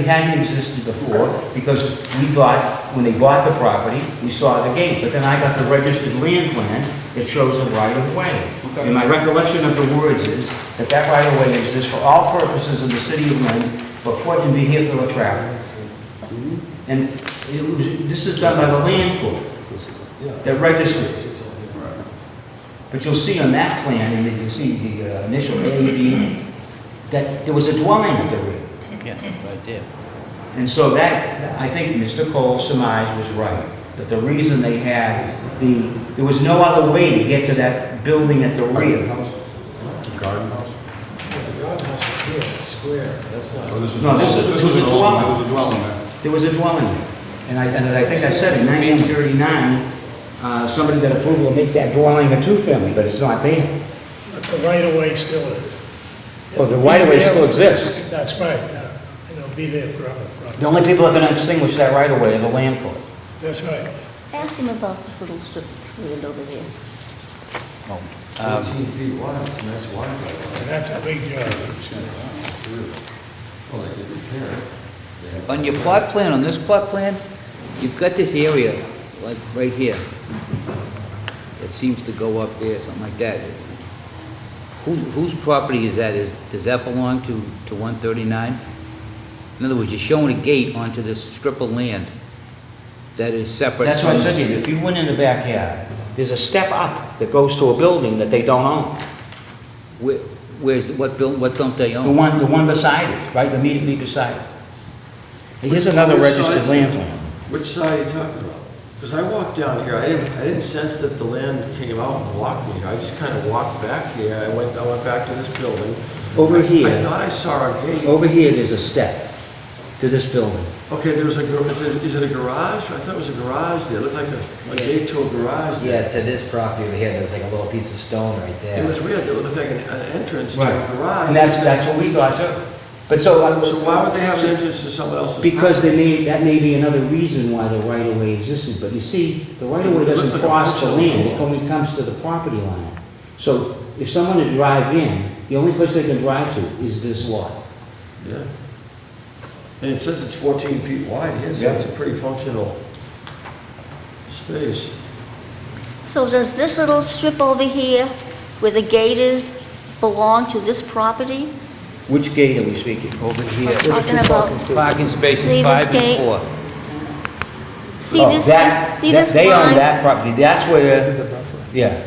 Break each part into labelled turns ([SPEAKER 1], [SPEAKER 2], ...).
[SPEAKER 1] It hadn't existed before, because we thought, when they bought the property, we saw the gate, but then I got the registered land plan that shows a right-of-way.
[SPEAKER 2] Okay.
[SPEAKER 1] And my recollection of the words is that that right-of-way exists for all purposes of the city of Lynn for foot and vehicular traffic. And it was, this is done by the land court that registered. But you'll see on that plan, and you can see the uh, initial AED, that there was a dwelling at the rear.
[SPEAKER 3] Yeah, right there.
[SPEAKER 1] And so that, I think Mr. Cole's surmise was right, that the reason they had the, there was no other way to get to that building at the rear.
[SPEAKER 2] Garden house?
[SPEAKER 4] But the garden house is here, it's square, that's not,
[SPEAKER 2] Oh,
[SPEAKER 4] no,
[SPEAKER 1] No, this is- this was a
[SPEAKER 2] an old-
[SPEAKER 1] dwelling.
[SPEAKER 2] It was a dwelling there.
[SPEAKER 1] There was a dwelling there. And I, and I think I said in 1939, uh, somebody got approval to make that dwelling a two-family, but it's not there.
[SPEAKER 5] But the right-of-way still is.
[SPEAKER 1] Well, the right-of-way still exists.
[SPEAKER 5] That's right, yeah. and it'll be there forever,
[SPEAKER 1] The
[SPEAKER 5] right?
[SPEAKER 1] only people that can extinguish that right-of-way are the land court.
[SPEAKER 5] That's right.
[SPEAKER 6] Ask him about this little strip of land over there.
[SPEAKER 3] Um,
[SPEAKER 1] Um,
[SPEAKER 2] Eighteen feet wide, it's a nice wide.
[SPEAKER 5] And that's a big yard.
[SPEAKER 2] Well, they could repair it. They had-
[SPEAKER 3] On your plot plan, on this plot plan, you've got this area, like right here, that seems to go up there, something like that. Who, whose property is that? Is, does that belong to, to 139? In other words, you're showing a gate onto this strip of land that is separate.
[SPEAKER 1] That's what I
[SPEAKER 3] from-
[SPEAKER 1] said to you, if you went in the backyard, there's a step up that goes to a building that they don't own.
[SPEAKER 3] Where- Where's, what buil, what don't they
[SPEAKER 1] The
[SPEAKER 3] own?
[SPEAKER 1] one, the one beside it, right, immediately beside it. And Here's another
[SPEAKER 7] Which
[SPEAKER 1] registered
[SPEAKER 7] side's-
[SPEAKER 1] land plan.
[SPEAKER 7] Which side are you talking about? Because I walked down here, I didn't, I didn't sense that the land came out and blocked me. I just kind of walked back here, I went, I went back to this building.
[SPEAKER 1] Over
[SPEAKER 7] I-
[SPEAKER 1] here.
[SPEAKER 7] I thought I saw a gate.
[SPEAKER 1] Over here, there's a step to this building.
[SPEAKER 7] Okay, there was a, gar- is it- is it a garage? I thought it was a garage there, it looked like a, a gate to a garage there.
[SPEAKER 8] Yeah, to this property over here, there's like a little piece of stone right there.
[SPEAKER 7] It was weird, it looked like an, an entrance to a garage.
[SPEAKER 1] And that's, that's what we thought too. But so, I
[SPEAKER 7] So why would they have an
[SPEAKER 1] was-
[SPEAKER 7] entrance to someone else's?
[SPEAKER 1] because
[SPEAKER 7] property?
[SPEAKER 1] they may, that may be another reason why the right of way existed, but you see, the right of way
[SPEAKER 7] It looks
[SPEAKER 1] doesn't
[SPEAKER 7] like a
[SPEAKER 1] cross the
[SPEAKER 7] functional
[SPEAKER 1] land, it
[SPEAKER 7] wall.
[SPEAKER 1] only comes to the property line. So if someone to drive in, the only place they can drive to is this lot.
[SPEAKER 7] Yeah. And it says it's fourteen feet wide here, so
[SPEAKER 1] Yeah.
[SPEAKER 7] it's a pretty functional space.
[SPEAKER 6] So does this little strip over here, where the gate is, belong to this property?
[SPEAKER 1] Which gate are we speaking? Over
[SPEAKER 6] We're Talking about,
[SPEAKER 3] Parking spaces
[SPEAKER 6] Leave this
[SPEAKER 3] five and
[SPEAKER 6] gate.
[SPEAKER 3] four.
[SPEAKER 6] see this, this- see this
[SPEAKER 1] They own
[SPEAKER 6] line?
[SPEAKER 1] that property, that's where, yeah.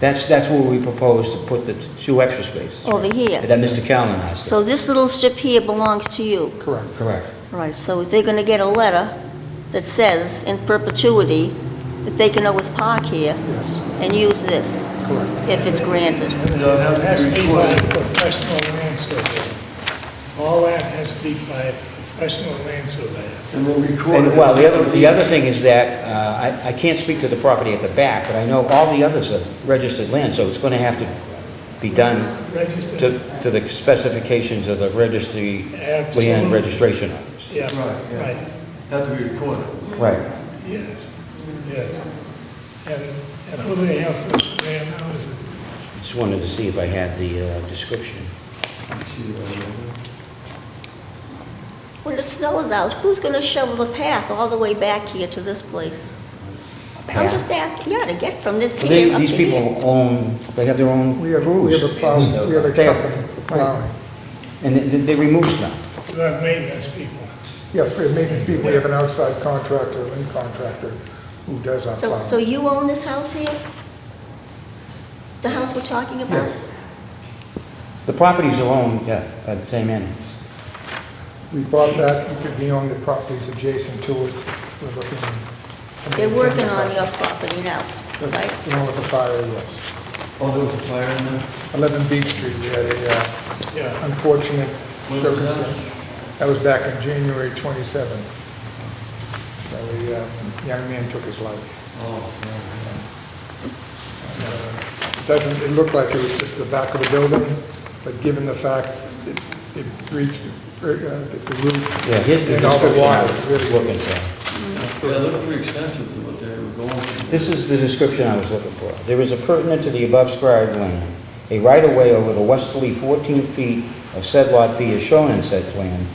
[SPEAKER 1] That's, that's where we propose to put the two extra spaces.
[SPEAKER 6] Over here.
[SPEAKER 1] That Mr. Callen asked.
[SPEAKER 6] So this little strip here belongs to you?
[SPEAKER 8] Correct. Correct.
[SPEAKER 6] Right, so they're gonna get a letter that says in perpetuity that they can always park here and use this? Correct. If it's granted.
[SPEAKER 7] No, it has to uh, be
[SPEAKER 5] Has be by
[SPEAKER 7] recorded.
[SPEAKER 5] a professional land surveyor. All that has to be by a professional land surveyor.
[SPEAKER 7] And then record it.
[SPEAKER 1] And, well, the other, the other thing is that, uh, I, I can't speak to the property at the back, but I know all the others are registered land, so it's gonna have to be done
[SPEAKER 5] Registered,
[SPEAKER 1] to, to the specifications of the registry, land
[SPEAKER 5] Absolutely.
[SPEAKER 1] registration office.
[SPEAKER 5] yeah,
[SPEAKER 7] Right, yeah.
[SPEAKER 5] right,
[SPEAKER 7] Have to be recorded.
[SPEAKER 1] Right.
[SPEAKER 5] yes, yes. And, and who do they have for a surveyor now? Is it
[SPEAKER 1] Just wanted to see if I had the, uh, description.
[SPEAKER 7] See the other one?
[SPEAKER 6] When the snow is out, who's gonna shovel the path all the way back here to this place? I'm
[SPEAKER 1] Path.
[SPEAKER 6] just asking, yeah, to get from this
[SPEAKER 1] So they-
[SPEAKER 6] here up to
[SPEAKER 1] These
[SPEAKER 6] here.
[SPEAKER 1] people own, they have their own
[SPEAKER 2] We have, we have a plow, we have a
[SPEAKER 1] There.
[SPEAKER 2] truck for plowing.
[SPEAKER 1] And they- they remove snow.
[SPEAKER 5] You have maintenance people.
[SPEAKER 2] Yes, we have maintenance people, we have an outside contractor, an in contractor who does our
[SPEAKER 6] So,
[SPEAKER 2] plowing.
[SPEAKER 6] so you own this house here? The house we're talking about?
[SPEAKER 2] Yes,
[SPEAKER 1] The properties are owned, yeah, by the same entities.
[SPEAKER 2] we bought that, we could be on the properties adjacent to it, we're looking.
[SPEAKER 6] They're working on your property now, right?
[SPEAKER 2] The one with the fire, yes.
[SPEAKER 7] Oh, there was a fire in there?
[SPEAKER 2] 11 Beach Street, we had a uh,
[SPEAKER 5] Yeah,
[SPEAKER 2] unfortunate
[SPEAKER 7] When was that?
[SPEAKER 2] circumstance. That was back in January 27th. So a uh, young man took his life.
[SPEAKER 7] Oh, no.
[SPEAKER 2] Doesn't, Uh, it looked like it was just the back of the building, but given the fact it it breached uh, the roof.
[SPEAKER 1] Yeah, here's the
[SPEAKER 2] And all the
[SPEAKER 1] description I
[SPEAKER 2] wire,
[SPEAKER 1] was
[SPEAKER 2] really.
[SPEAKER 1] looking for.
[SPEAKER 7] Yeah, it looked pretty extensive, what they were going through.
[SPEAKER 1] This is the description I was looking for. There is a pertinent to the above described land, a right-of-way over the westerly 14 feet of said lot B is shown in said plan,